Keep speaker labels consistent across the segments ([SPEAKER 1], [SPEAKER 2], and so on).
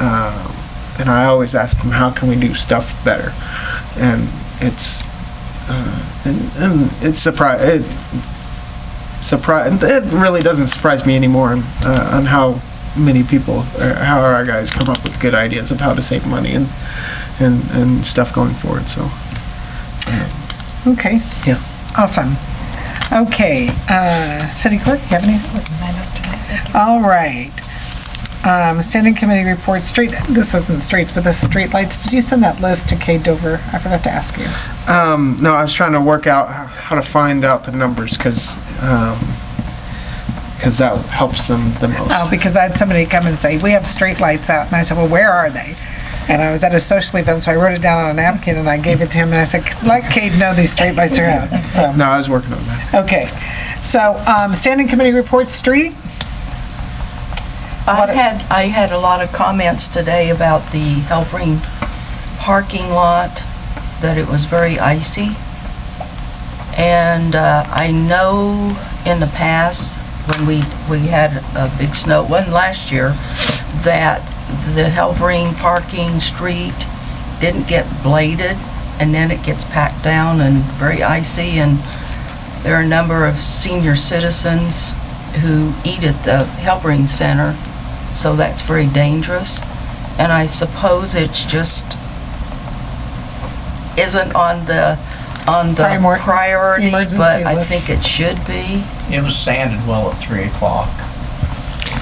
[SPEAKER 1] Um, and I always ask them, how can we do stuff better? And it's uh, and, and it's surprise it surprise it really doesn't surprise me anymore on, uh, on how many people or how our guys come up with good ideas of how to save money and and and stuff going forward. So
[SPEAKER 2] Okay,
[SPEAKER 1] yeah.
[SPEAKER 2] awesome. Okay, uh, City Clerk, you have any? All right. Um, Standing Committee report, street, this isn't streets, but this is streetlights. Did you send that list to Kay Dover? I forgot to ask you.
[SPEAKER 1] Um, no, I was trying to work out h- how to find out the numbers because because that helps them the most.
[SPEAKER 2] Oh, because I had somebody come and say, we have streetlights out, and I said, well, where are they? And I was at a social event, so I wrote it down on a napkin and I gave it to him, and I said, let Kate know these streetlights are out, so.
[SPEAKER 1] No, I was working on that.
[SPEAKER 2] Okay, so, um, standing committee reports, street, What-
[SPEAKER 3] I had, I had a lot of comments today about the Elfring parking lot, that it was very icy. And uh, I know in the past, when we, we had a big snow, one last year, that the Elfring parking street didn't get bladed, and then it gets packed down and very icy, and there are a number of senior citizens who eat at the Helpering Center, so that's very dangerous. And I suppose it's just, isn't on the, on the
[SPEAKER 2] Primor-
[SPEAKER 3] priority,
[SPEAKER 2] emergency
[SPEAKER 3] but I
[SPEAKER 2] list.
[SPEAKER 3] think it should be.
[SPEAKER 4] It was sanded well at three o'clock.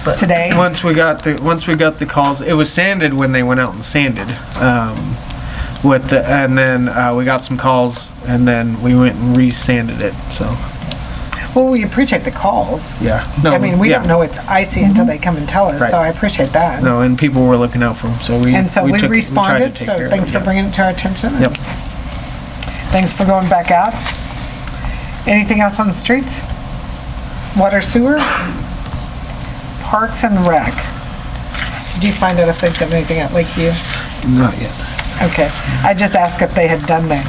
[SPEAKER 3] But
[SPEAKER 2] today.
[SPEAKER 1] Once we got the once we got the calls, it was sanded when they went out and sanded. Um, with the and then uh, we got some calls and then we went and re-sanded it. So
[SPEAKER 2] Well, we appreciate the calls.
[SPEAKER 1] yeah,
[SPEAKER 2] I mean, we
[SPEAKER 1] yeah.
[SPEAKER 2] don't know it's icy until they come and tell us,
[SPEAKER 1] Right.
[SPEAKER 2] so I appreciate that.
[SPEAKER 1] No, and people were looking out for them, so we
[SPEAKER 2] And so
[SPEAKER 1] we
[SPEAKER 2] we
[SPEAKER 1] took- we tried to
[SPEAKER 2] responded,
[SPEAKER 1] take
[SPEAKER 2] so
[SPEAKER 1] care of
[SPEAKER 2] thanks
[SPEAKER 1] it,
[SPEAKER 2] for
[SPEAKER 1] yeah.
[SPEAKER 2] bringing it to our attention. and
[SPEAKER 1] Yep.
[SPEAKER 2] Thanks for going back out. Anything else on the streets? Water sewer? Parks and rec? Did you find out if they've done anything at Lakeview?
[SPEAKER 1] Not yet.
[SPEAKER 2] Okay, I just asked if they had done the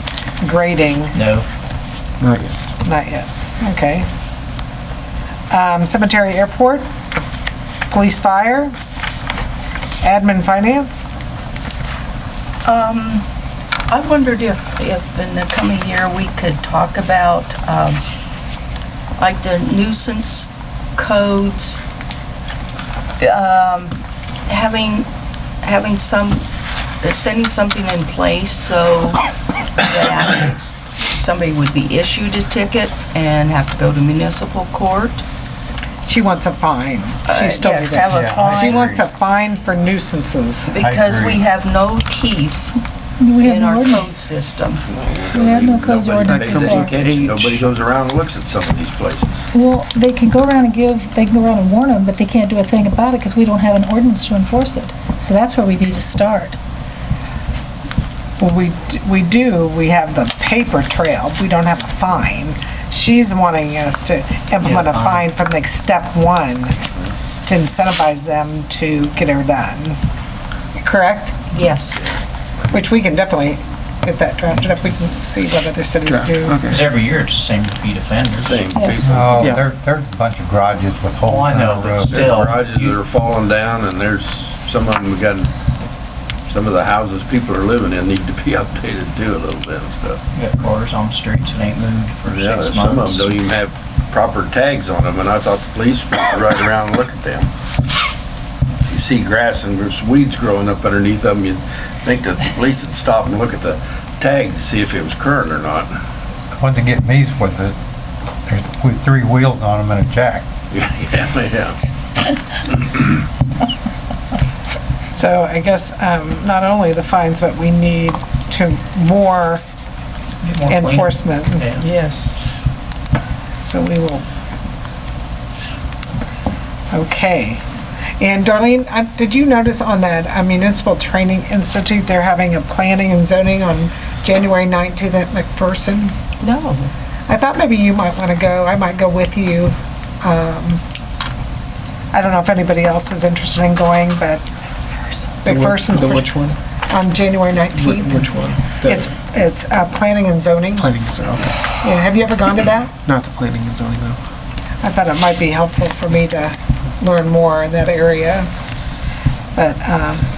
[SPEAKER 2] grading,
[SPEAKER 4] No,
[SPEAKER 1] Not yet.
[SPEAKER 2] not yet. Okay. Um, Cemetery, airport, police, fire, admin, finance?
[SPEAKER 3] Um, I wondered if, if in the coming year, we could talk about, um, like the nuisance codes, um, having, having some, sending something in place so that somebody would be issued a ticket and have to go to municipal court.
[SPEAKER 2] She wants a fine. She's told me
[SPEAKER 3] Uh, Yes, have
[SPEAKER 2] that.
[SPEAKER 3] a
[SPEAKER 2] She
[SPEAKER 3] fine,
[SPEAKER 2] wants a fine for nuisances.
[SPEAKER 3] because we
[SPEAKER 4] agree.
[SPEAKER 3] have no teeth
[SPEAKER 5] We
[SPEAKER 3] in
[SPEAKER 5] have no
[SPEAKER 3] our code
[SPEAKER 5] ordinance.
[SPEAKER 3] system.
[SPEAKER 5] We have no codes or
[SPEAKER 1] That
[SPEAKER 5] ordinances
[SPEAKER 1] comes
[SPEAKER 5] there.
[SPEAKER 1] with age.
[SPEAKER 6] Nobody goes around and looks at some of these places.
[SPEAKER 5] Well, they can go around and give, they can go around and warn them, but they can't do a thing about it because we don't have an ordinance to enforce it. So that's where we need to start.
[SPEAKER 2] Well, we, d- we do, we have the paper trail, we don't have a fine. She's wanting us to implement a fine from like step one to incentivize them to get her done. Correct?
[SPEAKER 3] Yes.
[SPEAKER 2] Which we can definitely get that drafted up, we can see what other cities
[SPEAKER 1] Draft,
[SPEAKER 2] do.
[SPEAKER 1] Okay.
[SPEAKER 4] because every year it's the same repeat offenders.
[SPEAKER 6] Same people.
[SPEAKER 5] Yes.
[SPEAKER 4] Uh,
[SPEAKER 7] Oh,
[SPEAKER 1] Yeah.
[SPEAKER 7] there, there's a bunch of garages with holes
[SPEAKER 4] Oh, I
[SPEAKER 7] in
[SPEAKER 4] know,
[SPEAKER 7] the
[SPEAKER 4] but
[SPEAKER 7] roof.
[SPEAKER 6] There's
[SPEAKER 4] Still,
[SPEAKER 6] garages that
[SPEAKER 4] you-
[SPEAKER 6] are falling down and there's some of them, we got, some of the houses people are living in need to be updated too a little bit and stuff.
[SPEAKER 4] You got cars on the streets that ain't moved for
[SPEAKER 6] Yeah,
[SPEAKER 4] six
[SPEAKER 6] some of them
[SPEAKER 4] months.
[SPEAKER 6] don't e- even have proper tags on them and I thought the police would ride around and look at them. You see grass and there's weeds growing up underneath them, you'd think that the police would stop and look at the tag to see if it was current or not.
[SPEAKER 7] The Ones that get me is with the, there's with three wheels on them and a jack.
[SPEAKER 6] Yeah, yeah.
[SPEAKER 2] So I guess, um, not only the fines, but we need to more
[SPEAKER 4] Get more clean.
[SPEAKER 2] enforcement.
[SPEAKER 4] Yeah.
[SPEAKER 2] Yes. So we will. Okay. And Darlene, I- did you notice on that uh, Municipal Training Institute, they're having a planning and zoning on January 19th at McPherson?
[SPEAKER 3] No.
[SPEAKER 2] I thought maybe you might want to go. I might go with you. Um, I don't know if anybody else is interested in going, but McPherson's
[SPEAKER 1] The which one?
[SPEAKER 2] on January
[SPEAKER 1] Which
[SPEAKER 2] 19th.
[SPEAKER 1] which one? The
[SPEAKER 2] It's, it's uh, planning and zoning.
[SPEAKER 1] planning and zoning. Okay.
[SPEAKER 2] Yeah, Have you ever gone to that?
[SPEAKER 1] Not the planning and zoning though.
[SPEAKER 2] I thought it might be helpful for me to learn more in that area. But um,